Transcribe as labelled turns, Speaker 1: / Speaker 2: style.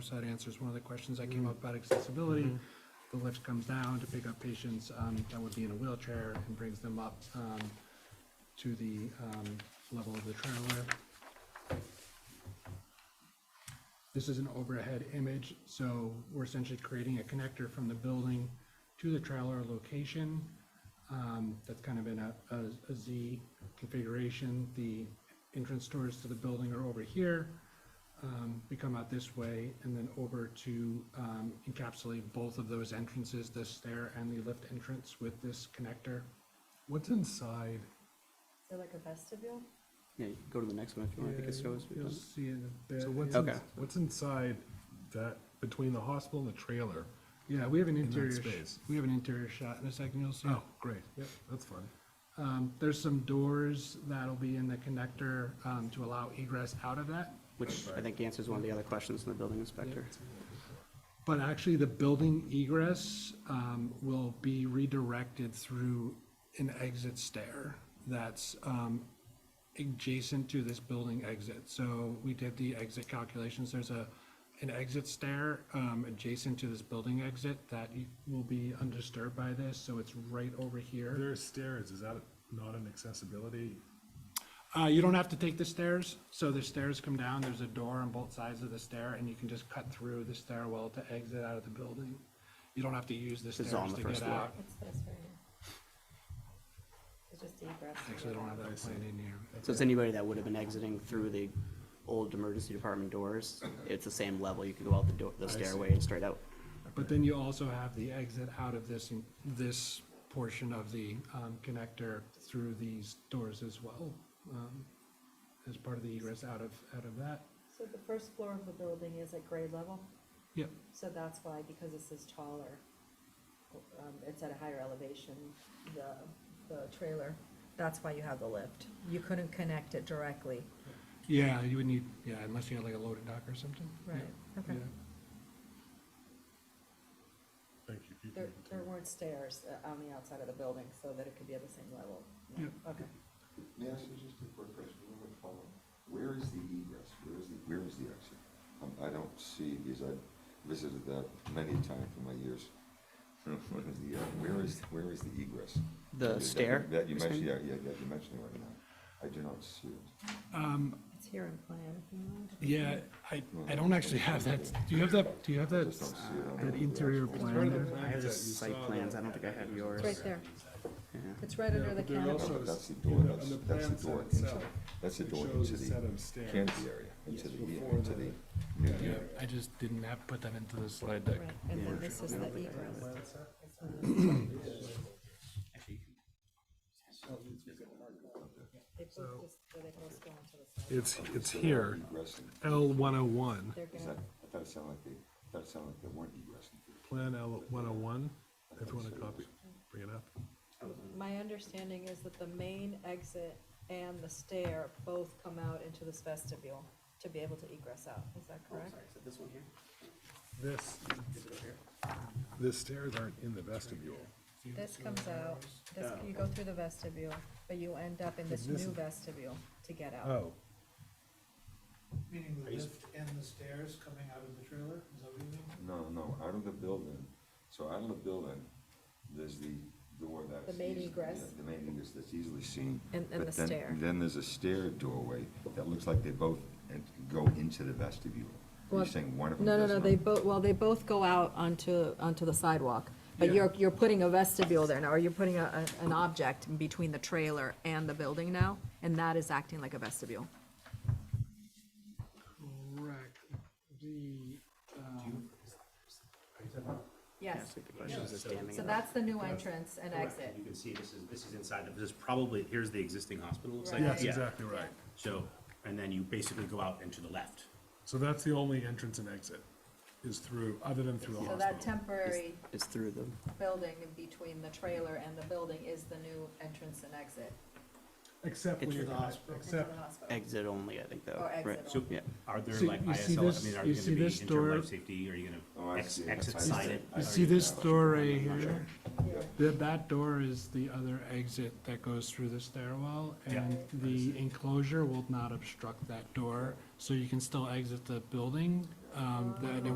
Speaker 1: So that answers one of the questions that came up about accessibility. The lift comes down to pick up patients um, that would be in a wheelchair and brings them up um, to the um, level of the trailer. This is an overhead image, so we're essentially creating a connector from the building to the trailer location. um, That's kind of in a, a- a Z configuration. The entrance doors to the building are over here. um, We come out this way and then over to um, encapsulate both of those entrances, the stair and the lift entrance with this connector.
Speaker 2: What's inside?
Speaker 3: So like a vestibule?
Speaker 4: Yeah, you go to the next one if you want, Oh, I think it
Speaker 1: Yeah,
Speaker 4: shows.
Speaker 1: You'll see in a bit.
Speaker 2: So what's,
Speaker 4: Okay.
Speaker 2: ins- what's inside that, between the hospital and the trailer?
Speaker 1: Yeah, we have an
Speaker 2: that
Speaker 1: interior, sh-
Speaker 2: space.
Speaker 1: we have an interior shot in a second, you'll see. it.
Speaker 2: Oh, great.
Speaker 1: Yep.
Speaker 2: That's fun.
Speaker 1: Um, there's some doors that'll be in the connector, um, to allow egress out of that.
Speaker 4: Which I think answers one of the other questions from the building inspector.
Speaker 1: But actually, the building egress, um, will be redirected through an exit stair that's, um, adjacent to this building exit. So we did the exit calculations. There's a, an exit stair, um, adjacent to this building exit that you- will be undisturbed by this, so it's right over here.
Speaker 2: There are stairs, is that not an accessibility?
Speaker 1: Uh, you don't have to take the stairs, so the stairs come down, there's a door on both sides of the stair, and you can just cut through the stairwell to exit out of the building. You don't have to use the
Speaker 4: is on
Speaker 1: stairs
Speaker 4: the
Speaker 1: to
Speaker 4: first
Speaker 1: get
Speaker 4: floor.
Speaker 1: out.
Speaker 3: What's this right here? It's just egress.
Speaker 1: Actually, I don't have that plan in here.
Speaker 4: So it's anybody that would have been exiting through the old emergency department doors, it's the same level, you could go out the door, the
Speaker 2: see.
Speaker 4: stairway and straight out.
Speaker 1: But then you also have the exit out of this, this portion of the, um, connector through these doors as well, um, as part of the egress out of, out of that.
Speaker 3: So the first floor of the building is at grade level,
Speaker 1: Yep,
Speaker 3: so that's why, because this is taller, um, it's at a higher elevation, the, the trailer, that's why you have the lift. You couldn't connect it directly,
Speaker 1: yeah, you would need, yeah, unless you had like a loaded dock or something. Yeah,
Speaker 3: right? Okay.
Speaker 1: yeah.
Speaker 2: Thank you. you. can
Speaker 3: There, there
Speaker 2: continue.
Speaker 3: weren't stairs uh, on the outside of the building, so that it could be at the same level. No, Okay.
Speaker 5: May I ask you just a quick question, you might follow. Where is the egress? Where is the, where is the exit? Um, I don't see, because I've visited that many times in my years. What is the, uh, where is, where is the egress?
Speaker 4: The
Speaker 5: That-
Speaker 4: stair,
Speaker 5: That you
Speaker 4: you're saying?
Speaker 5: mentioned, yeah, yeah, that you mentioned it right now. I do not see it.
Speaker 1: Um,
Speaker 3: It's here in plan, if you want.
Speaker 1: Yeah, I, I don't actually have that, do you have that, do you have
Speaker 5: I
Speaker 1: that,
Speaker 5: just don't see it on
Speaker 1: that
Speaker 5: the-
Speaker 1: interior plan there?
Speaker 4: I have the site plans, I don't think I have yours.
Speaker 3: It's right there.
Speaker 4: Yeah.
Speaker 3: It's right under the
Speaker 2: there
Speaker 3: canopy.
Speaker 2: also-
Speaker 5: No, but
Speaker 2: is-
Speaker 5: that's the
Speaker 2: in
Speaker 5: door,
Speaker 2: the-
Speaker 5: that's,
Speaker 2: in the
Speaker 5: that's
Speaker 2: plan
Speaker 5: the door
Speaker 2: set
Speaker 5: into,
Speaker 2: itself,
Speaker 5: that's the
Speaker 2: it
Speaker 5: door
Speaker 2: shows
Speaker 5: into
Speaker 2: a set of
Speaker 5: the
Speaker 2: stairs
Speaker 5: canopy area, into
Speaker 2: Yes,
Speaker 5: the,
Speaker 2: before
Speaker 5: into
Speaker 2: the-
Speaker 5: the new
Speaker 2: Yeah.
Speaker 5: area.
Speaker 1: I just didn't have, put that into the slide deck.
Speaker 3: Right, and then this is the egress. They both just, or they both go onto the side.
Speaker 2: It's, it's here,
Speaker 5: Egress, and-
Speaker 2: L one oh one,
Speaker 3: They're
Speaker 5: is that,
Speaker 3: gonna,
Speaker 5: I thought it sounded like they, that sounded like they weren't egressing.
Speaker 2: Plan L one oh one, if you want to copy, bring it up.
Speaker 3: my understanding is that the main exit and the stair both come out into this vestibule to be able to egress out, is that
Speaker 2: Oh,
Speaker 3: correct?
Speaker 4: this one here?
Speaker 2: This, the stairs aren't in the vestibule.
Speaker 3: This comes out, this, you go through the vestibule, but you end up in this
Speaker 2: Oh, This
Speaker 3: new
Speaker 2: is-
Speaker 3: vestibule to get out.
Speaker 2: Oh,
Speaker 6: Meaning the lift and the stairs coming out of the trailer, is that what you mean?
Speaker 5: No, no, out of the building, so out of the building, there's the door that's.
Speaker 3: The main
Speaker 5: eas-
Speaker 3: egress.
Speaker 5: yeah, The main egress that's easily seen.
Speaker 3: And- and
Speaker 5: but
Speaker 3: the
Speaker 5: then-
Speaker 3: stair.
Speaker 5: Then there's a stair doorway that looks like they both en- go into the vestibule. Are
Speaker 3: Well,
Speaker 5: you saying one of them
Speaker 3: No, no,
Speaker 5: does
Speaker 3: no,
Speaker 5: not?
Speaker 3: they both, well, they both go out onto, onto the sidewalk, but you're, you're putting a vestibule there now, or you're putting a, a- an object in between the trailer and the building now, and that is acting like a vestibule.
Speaker 1: Correct, the,
Speaker 3: Yes,
Speaker 4: The question is, is standing
Speaker 3: so
Speaker 4: up.
Speaker 3: that's the new entrance and
Speaker 7: Correct.
Speaker 3: exit.
Speaker 7: You can see this is, this is inside, of- this is probably, here's the existing hospital, looks like.
Speaker 3: Right.
Speaker 2: that's
Speaker 3: Yes,
Speaker 7: Yeah.
Speaker 2: exactly right.
Speaker 7: So, and then you basically go out and to the left.
Speaker 2: So that's the only entrance and exit, is through, other than through the
Speaker 3: So that
Speaker 2: hospital.
Speaker 3: temporary
Speaker 4: It's through the,
Speaker 3: building in between the trailer and the building is the new entrance and exit
Speaker 2: Except when
Speaker 4: It's
Speaker 2: you're,
Speaker 4: the
Speaker 3: into the
Speaker 2: except,
Speaker 3: hospital.
Speaker 4: exit only, I think, though.
Speaker 3: Or
Speaker 4: right?
Speaker 3: Oh, exit
Speaker 7: So,
Speaker 4: Yeah.
Speaker 7: are there
Speaker 1: So
Speaker 7: like
Speaker 1: you see
Speaker 7: ISL, I
Speaker 1: this-
Speaker 7: mean, are
Speaker 1: you
Speaker 7: you
Speaker 1: see
Speaker 7: gonna be
Speaker 1: this
Speaker 7: inter
Speaker 1: door?
Speaker 7: life safety, are you
Speaker 5: Oh,
Speaker 7: gonna
Speaker 5: I
Speaker 7: ex-
Speaker 5: see.
Speaker 7: exit
Speaker 5: That's- I see.
Speaker 7: sided?
Speaker 1: you see this door right
Speaker 7: I'm not
Speaker 1: here?
Speaker 7: sure.
Speaker 3: Yeah.
Speaker 1: That, that door is the other exit that goes through the stairwell,
Speaker 7: Yeah.
Speaker 1: and the enclosure will not obstruct that door, so you can still exit the building, um, that